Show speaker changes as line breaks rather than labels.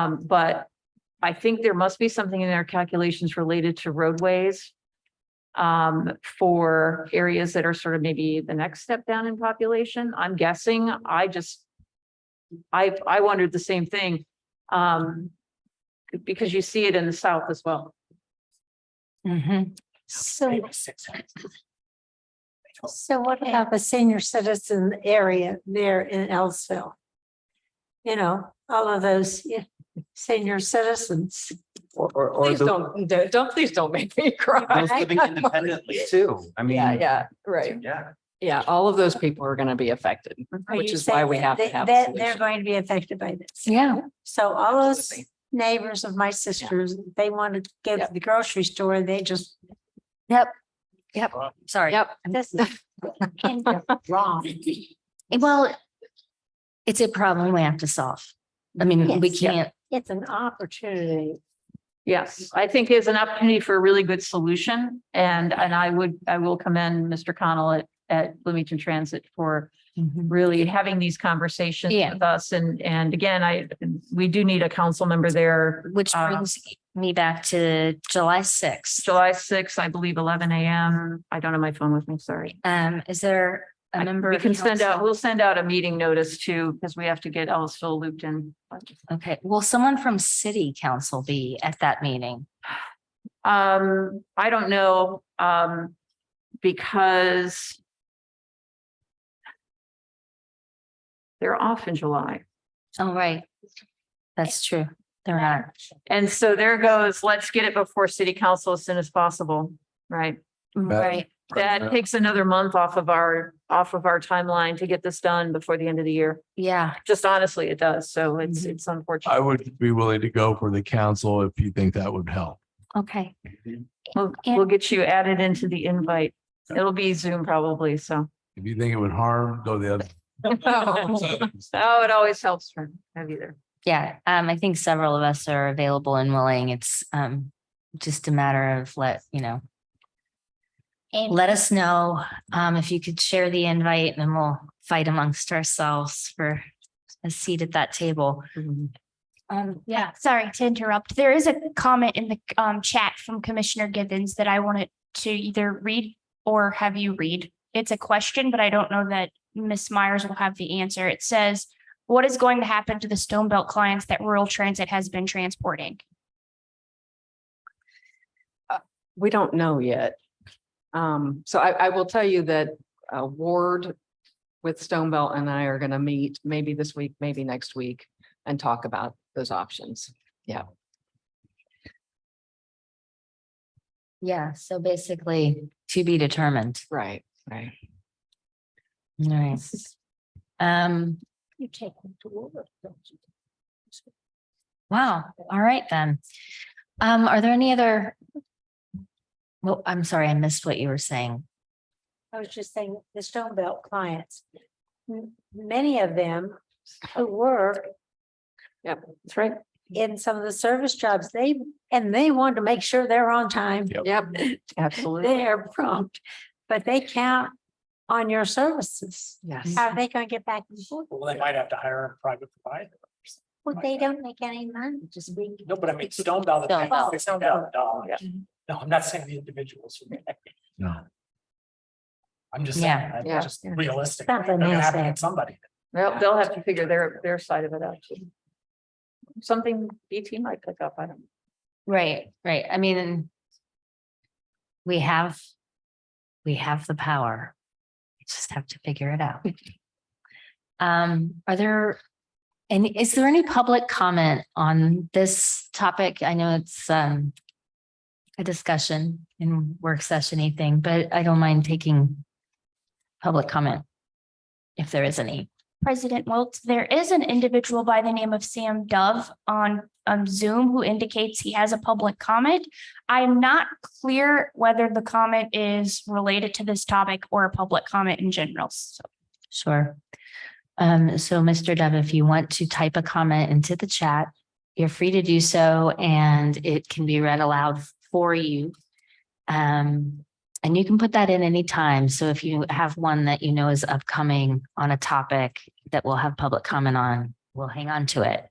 Um, but I think there must be something in their calculations related to roadways. Um, for areas that are sort of maybe the next step down in population, I'm guessing, I just. I, I wondered the same thing, um, because you see it in the south as well.
So. So what about the senior citizen area there in Ellisville? You know, all of those yeah, senior citizens.
Or, or, or
Please
the-
don't, don't, please don't make me cry.
those living independently too. I mean.
Yeah, yeah, right.
Yeah.
Yeah, all of those people are going to be affected.
Are
Which
you
is why we
saying
have to
that
have a
They, they're
solution.
going to be affected by this.
Yeah.
So all those
Absolutely.
neighbors of my sisters, they want to go to
Yep.
the grocery store and they just.
Yep, sorry.
Yep.
This is wrong.
Well, it's a problem we have to solve. I mean, we
Yes, yeah.
can't,
It's an opportunity.
Yes, I think it's an opportunity for a really good solution and, and I would, I will commend Mr. Connell at, at Bloomington Transit for really having these conversations
Yeah.
with us. And, and again, I, we do need a council member there.
which
Uh,
brings me back to July sixth.
July sixth, I believe, eleven AM. I don't have my phone with me, sorry.
Um, is there a
I-
member?
We
of
can send out,
council-
we'll send out a meeting notice too, because we have to get Ellisville looped in.
Okay, will someone from city council be at that meeting?
Um, I don't know, um, because they're off in July.
Oh, right. That's true. They're not.
And so there goes, let's get it before city council as soon as possible, right?
Right.
That takes another month off of our, off of our timeline to get this done before the end of the year.
Yeah.
Just honestly, it does. So it's,
Mhm.
it's unfortunate.
I would be willing to go for the council if you think that would help.
Okay.
We'll, we'll get you added into the invite. It'll be Zoom probably, so.
If you think it would harm, go the other.
Oh, it always helps for, have you there.
Yeah. Um, I think several of us are available and willing. It's, um, just a matter of let, you know, let us know, um, if you could share the invite and then we'll fight amongst ourselves for a seat at that table.
Um, yeah, sorry to interrupt. There is a comment in the um chat from Commissioner Givens that I wanted to either read or have you read. It's a question, but I don't know that Ms. Myers will have the answer. It says, what is going to happen to the Stone Belt clients that rural transit has been transporting?
We don't know yet. Um, so I, I will tell you that uh, Ward with Stone Belt and I are going to meet maybe this week, maybe next week and talk about those options.
Yeah. So basically to be determined.
Right, right.
All right. Um.
You take them to work, don't you?
Wow, all right then. Um, are there any other? Well, I'm sorry, I missed what you were saying.
I was just saying, the Stone Belt clients, m- many of them who work
That's right.
in some of the service jobs, they, and they want to make sure they're on time.
Yep.
Yep.
Absolutely.
They're prompt, but they count on your services.
Yes.
How are they gonna get back and forth?
Well, they might have to hire a private provider.
Well, they don't make any money, just being.
No, but I mean, Stone Valley.
Stone Valley.
Sixty thousand dollars. No, I'm not saying the individuals.
No.
I'm just
Yeah,
saying, I'm
yeah.
just realistic. They're
Something
gonna
is
have to
there.
get somebody.
They'll, they'll have to figure their, their side of it out too. Something BT might pick up, I don't.
Right, right. I mean. We have. We have the power. We just have to figure it out. Um, are there? And is there any public comment on this topic? I know it's um. A discussion in work session anything, but I don't mind taking. Public comment. If there is any.
President Wiltz, there is an individual by the name of Sam Dove on um, Zoom who indicates he has a public comment. I am not clear whether the comment is related to this topic or a public comment in general. So
Sure. Um, so Mr. Dove, if you want to type a comment into the chat, you're free to do so and it can be read aloud for you. Um, and you can put that in any time. So if you have one that you know is upcoming on a topic that we'll have public comment on, we'll hang on to it.